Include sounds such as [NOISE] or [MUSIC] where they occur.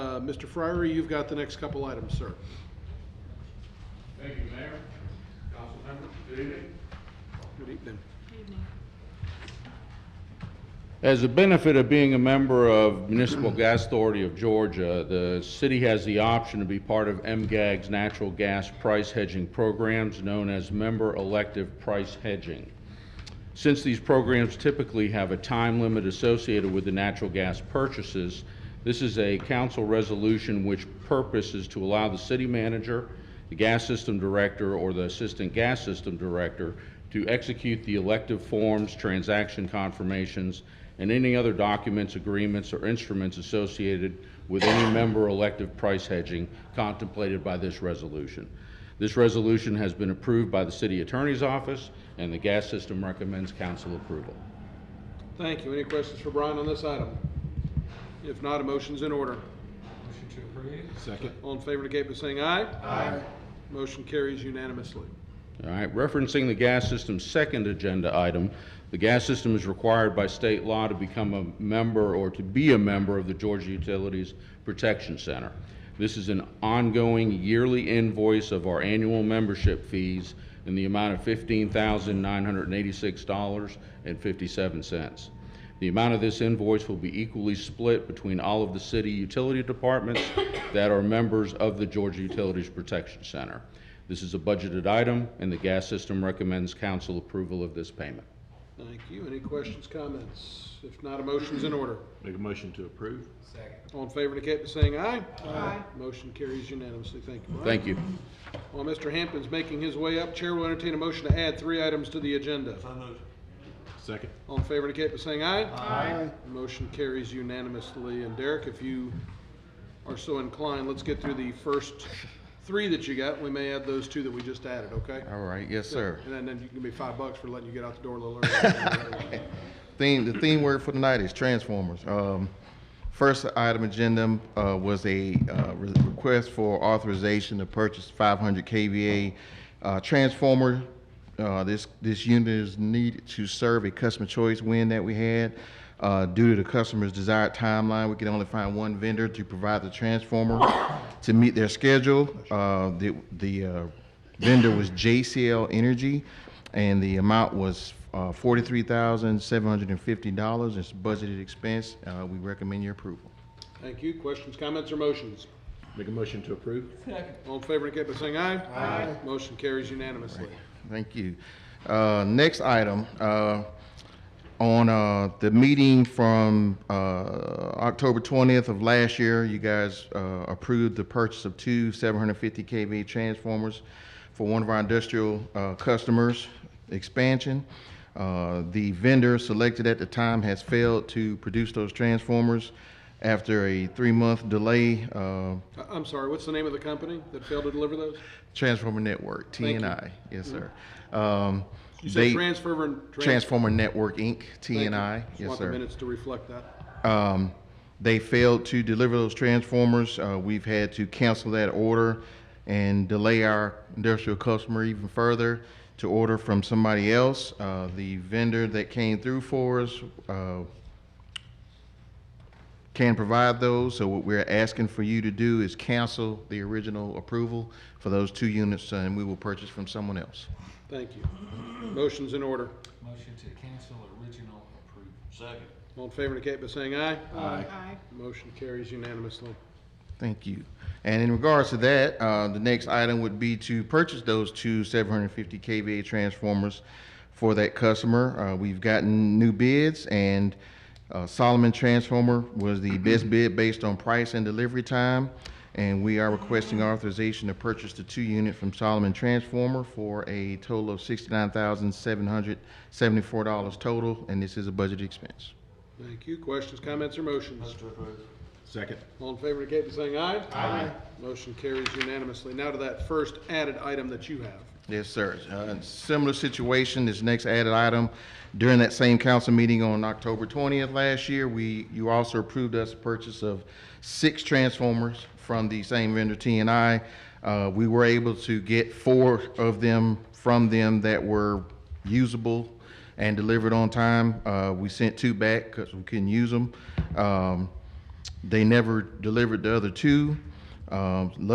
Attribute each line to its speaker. Speaker 1: Mr. Friary, Uh, you've got the next couple items, sir.
Speaker 2: Thank you, Mayor, council members, good evening.
Speaker 1: Good evening.
Speaker 2: As a benefit of being a member of Municipal Gas Authority of Georgia, the city has the option to be part of MGAG's natural gas price hedging programs known as Member Elective Price Hedging. Since these programs typically have a time limit associated with the natural gas purchases, this is a council resolution which purpose is to allow the city manager, the gas system director, or the assistant gas system director to execute the elective forms, transaction confirmations, and any other documents, agreements, or instruments associated with any member elective price hedging contemplated by this resolution. This resolution has been approved by the city attorney's office, and the gas system recommends council approval.
Speaker 1: Thank you. Any questions for Brian on this item? If not, a motion's in order.
Speaker 3: Motion to approve.
Speaker 1: Second. All in favor indicate by saying aye. Aye. Motion carries unanimously.
Speaker 2: All right, referencing the gas system's second agenda item, the gas system is required by state law to become a member or to be a member of the Georgia Utilities Protection Center. This is an ongoing yearly invoice of our annual membership fees in the amount of $15,986.57. The amount of this invoice will be equally split between all of the city utility departments that are members of the Georgia Utilities Protection Center. This is a budgeted item, and the gas system recommends council approval of this payment.
Speaker 1: Thank you. Any questions, comments? If not, a motion's in order.
Speaker 4: Make a motion to approve?
Speaker 3: Second.
Speaker 1: All in favor indicate by saying aye. Aye. Motion carries unanimously. Thank you, Brian.
Speaker 2: Thank you.
Speaker 1: While Mr. Hampton's making his way up, Chair will entertain a motion to add three items to the agenda.
Speaker 4: Second?
Speaker 1: All in favor indicate by saying aye. Aye. Motion carries unanimously. And Derek, if you are so inclined, let's get through the first three that you got. We may add those two that we just added, okay?
Speaker 5: All right, yes, sir.
Speaker 1: And then- then you can be five bucks for letting you get out the door a little early. [LAUGHS]
Speaker 5: Theme, the theme word for tonight is Transformers. Um, first item agenda, uh, was a, uh, re- request for authorization to purchase five hundred KVA, uh, transformer. Uh, this, this unit is needed to serve a customer choice win that we had. Uh, due to the customer's desired timeline, we can only find one vendor to provide the transformer to meet their schedule. Uh, the, the, uh, vendor was JCL Energy, and the amount was uh, $43,750. It's budgeted expense. Uh, We recommend your approval.
Speaker 1: Thank you. Questions, comments, or motions?
Speaker 4: Make a motion to approve?
Speaker 1: All in favor indicate by saying aye. Aye. Motion carries unanimously.
Speaker 5: Thank you. Uh, Next item, uh, on uh, the meeting from uh, October 20th of last year, you guys uh, approved the purchase of two 750 kV transformers for one of our industrial uh, customers expansion. Uh, The vendor selected at the time has failed to produce those transformers after a three-month delay. uh,
Speaker 1: I- I'm sorry, what's the name of the company that failed to deliver those?
Speaker 5: Transformer Network,
Speaker 1: Thank you. Mm-hmm.
Speaker 5: TNI. Yes, sir. Um,
Speaker 1: You
Speaker 5: they-
Speaker 1: said transfer and. trans-
Speaker 5: Transformer Network, Inc.,
Speaker 1: Thank you.
Speaker 5: TNI.
Speaker 1: Just
Speaker 5: Yes,
Speaker 1: want the
Speaker 5: sir.
Speaker 1: minutes to reflect that.
Speaker 5: Um, They failed to deliver those transformers. Uh, We've had to cancel that order and delay our industrial customer even further to order from somebody else. Uh, The vendor that came through for us uh, can provide those, so what we're asking for you to do is cancel the original approval for those two units, uh, and we will purchase from someone else.
Speaker 1: Thank you. Motion's in order.
Speaker 3: Motion to cancel original approval. Second.
Speaker 1: All in favor indicate by saying aye. Aye. Motion carries unanimously.
Speaker 5: Thank you. And in regards to that, uh, the next item would be to purchase those two 750 kVA transformers for that customer. Uh, We've gotten new bids, and uh, Solomon Transformer was the best bid based on price and delivery time, and we are requesting authorization to purchase the two unit from Solomon Transformer for a total of $69,774 total, and this is a budget expense.
Speaker 1: Thank you. Questions, comments, or motions?
Speaker 4: Second?
Speaker 1: All in favor indicate by saying aye. Aye. Motion carries unanimously. Now to that first added item that you have.
Speaker 5: Yes, sir. Uh, Similar situation, this next added item, during that same council meeting on October 20th last year, we, you also approved us purchase of six transformers from the same vendor, TNI. Uh, We were able to get four of them from them that were usable and delivered on time. Uh, We sent two back because we couldn't use them. Um, They never delivered the other two. Um,